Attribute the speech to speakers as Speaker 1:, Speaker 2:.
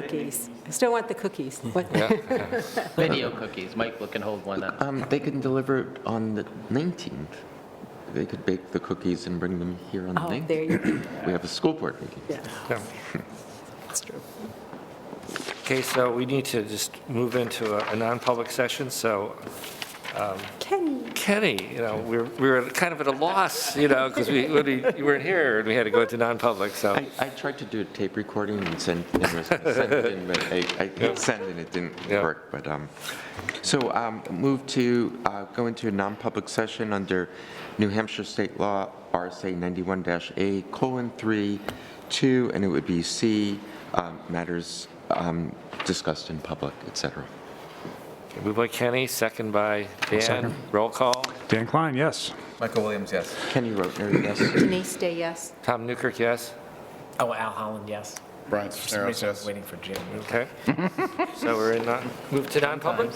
Speaker 1: Cookies. I still want the cookies. What-
Speaker 2: Video cookies, Michael can hold one up.
Speaker 3: Um, they can deliver it on the 19th. They could bake the cookies and bring them here on the
Speaker 1: Oh,
Speaker 3: 19th.
Speaker 1: there you go.
Speaker 3: We have a school board meeting.
Speaker 1: Yeah,
Speaker 4: Yeah.
Speaker 1: that's true.
Speaker 4: Okay, so we need to just move into a- a non-public session, so
Speaker 1: Kenny.
Speaker 4: Kenny, you know, we were- we were kind of at a loss, you know, because we, when we- you weren't here, and we had to go into non-public, so.
Speaker 3: I, I tried to do a tape recording and send, and it was- send it in, but I, I hit send and it didn't
Speaker 4: Yeah.
Speaker 3: work, but, um, so, um, move to, uh, go into a non-public session under New Hampshire State Law, RSA 91-A, colon, 3, 2, and it would be C, um, matters, um, discussed in public, et cetera.
Speaker 4: Moved by Kenny, second by Dan, roll call,
Speaker 5: Dan Klein, yes.
Speaker 6: Michael Williams, yes.
Speaker 3: Kenny Rotner, yes?
Speaker 7: Denise Day, yes.
Speaker 4: Tom Newkirk, yes?
Speaker 2: Oh, Al Holland, yes.
Speaker 6: Brian
Speaker 2: For some
Speaker 6: Sisneros,
Speaker 2: reason, I
Speaker 6: yes.
Speaker 2: was waiting for Jim.
Speaker 4: Okay. So we're in, non- move to non-public?